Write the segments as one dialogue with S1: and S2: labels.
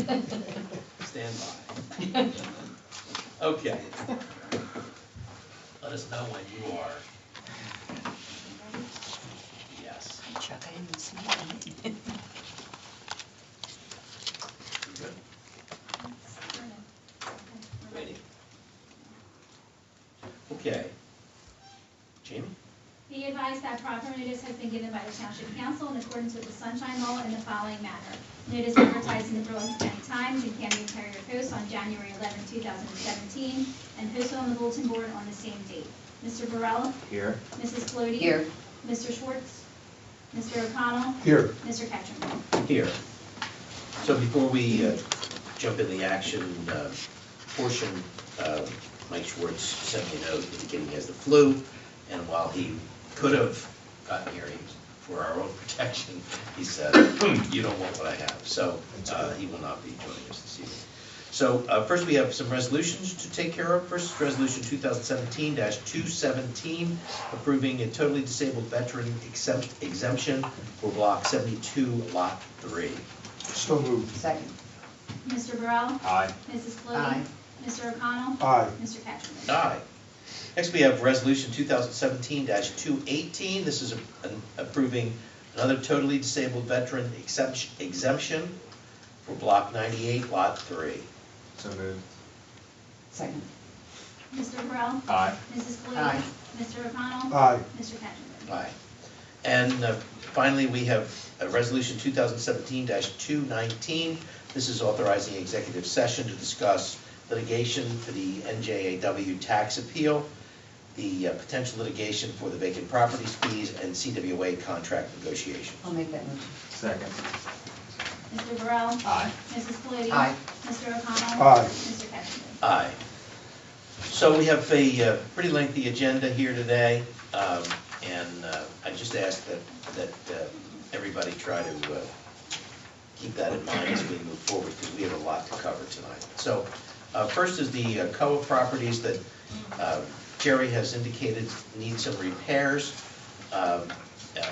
S1: Stand by. Okay. Let us know when you are. Yes.
S2: Chuck, I didn't see that.
S1: You good? Ready? Okay. Jamie?
S3: Be advised that proper notice has been given by the Township Council in accordance with the Sunshine Law in the following manner. Notice advertised in the Berlin County Times and Camden Courier Post on January 11, 2017, and posted on the bulletin board on the same date. Mr. Burrell?
S4: Here.
S3: Mrs. Flode?
S2: Here,
S3: Mr. Schwartz? Mr. O'Connell?
S4: Here.
S3: Mr. Ketchum?
S1: Here. So before we uh, jump in the action uh, portion, uh, Mike Schwartz sent me a note indicating he has the flu, and while he could have gotten here, he- for our own protection, he said, you don't want what I have, so uh, he will not be joining us this evening. So uh, first, we have some resolutions to take care of. First, is Resolution 2017-217, approving a totally disabled veteran exempt- exemption for Block 72, Lot 3.
S4: So moved.
S2: second,
S3: Mr. Burrell?
S4: Aye.
S3: Mrs. Flode?
S2: Aye.
S3: Mr. O'Connell?
S4: Aye.
S3: Mr. Ketchum?
S1: Aye. Next, we have Resolution 2017-218. This is a- an- approving another totally disabled veteran exemption exemption for Block 98, Lot 3.
S4: So moved.
S2: second,
S3: Mr. Burrell?
S4: Aye.
S3: Mrs. Flode?
S2: Aye.
S3: Mr. O'Connell?
S4: Aye.
S3: Mr. Ketchum?
S1: Aye. And uh, finally, we have uh, Resolution 2017-219. This is authorizing executive session to discuss litigation for the NJAW tax appeal, the uh, potential litigation for the vacant properties fees, and CWA contract negotiation.
S2: I'll make that motion.
S4: Second.
S3: Mr. Burrell?
S4: Aye.
S3: Mrs. Flode?
S2: Aye.
S3: Mr. O'Connell?
S4: Aye.
S3: Mr. Ketchum?
S1: Aye. So we have a uh, pretty lengthy agenda here today, um, and uh, I just ask that, that uh, everybody try to uh, keep that in mind as we move forward, because we have a lot to cover tonight. So uh, first is the uh, Coa properties that uh, Jerry has indicated need some repairs. Um, uh,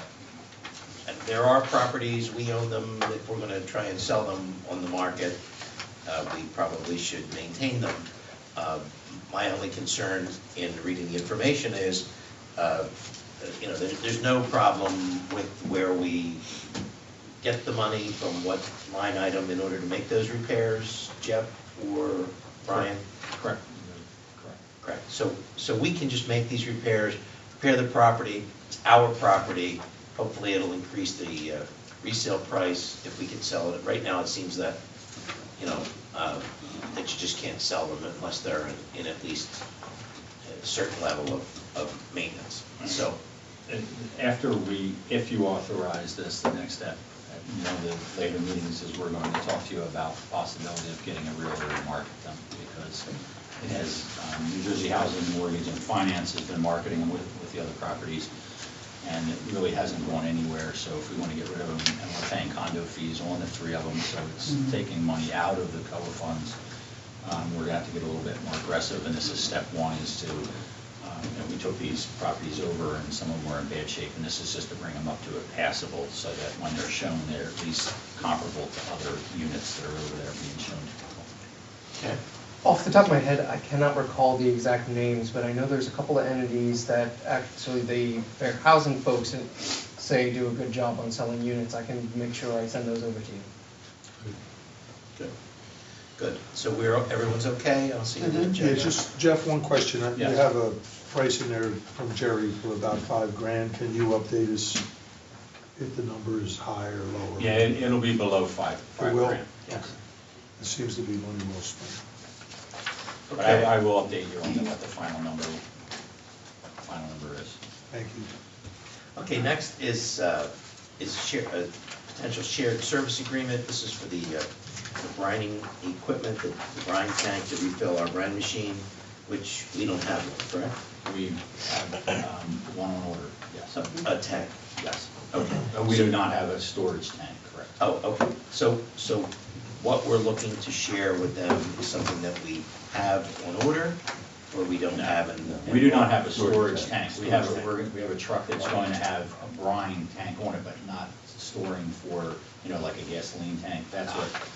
S1: and There are properties, we own them, that we're gonna try and sell them on the market. Uh, We probably should maintain them. Uh, My only concern in reading the information is, uh, you know, there's, there's no problem with where we get the money from what line item in order to make those repairs, Jeff or Brian? Correct. Correct. So, so we can just make these repairs, repair the property, it's our property. Hopefully, it'll increase the uh, resale price if we can sell it. Right now, it seems that, you know, uh, that you just can't sell them unless they're in- in at least a certain level of, of maintenance. So,
S5: And After we, if you authorize this, the next step, at one of the later meetings is we're going to talk to you about the possibility of getting a realtor to market them, because it has, um, New Jersey Housing, Mortgage and Finance has been marketing them with, with the other properties, and it really hasn't gone anywhere, so if we want to get rid of them, and we're paying condo fees on the three of them, so it's
S2: Mhm.
S5: taking money out of the cover funds, um, we're going to have to get a little bit more aggressive, and this is step one, is to, um, you know, we took these properties over, and some of them were in bad shape, and this is just to bring them up to a passable, so that when they're shown, they're at least comparable to other units that are over there being shown to people.
S1: okay,
S6: Off the top of my head, I cannot recall the exact names, but I know there's a couple of entities that actually the fair housing folks say do a good job on selling units. I can make sure I send those over to you.
S1: good, good. So we're, everyone's okay? I'll see you then,
S7: Yeah,
S1: Jeff.
S7: just, Jeff, one question. You
S5: Yeah.
S7: have a price in there from Jerry for about five grand. Can you update us if the number is high or low?
S5: Yeah, it- it'll be below five,
S7: It
S5: five
S7: will?
S5: grand.
S7: Okay. It seems to be money well spent.
S5: But I, I will update you on the- what the final number, final number is.
S7: Thank you.
S1: Okay, next is, uh, is share, a potential shared service agreement. This is for the uh, the brining equipment, the the brine tank to refill our brine machine, which we don't have, one, correct?
S5: We have um, one on order, yes.
S1: So, A tank,
S5: Yes.
S1: okay.
S5: Uh, We do not have a storage tank, correct?
S1: Oh, okay, so, so what we're looking to share with them is something that we have on order, or we don't have in.
S5: We do not have a storage tank. We have,
S1: Storage
S5: a
S1: tank.
S5: we're- we have a truck that's going to have a brine tank on it, but not storing for, you know, like a gasoline tank. That's what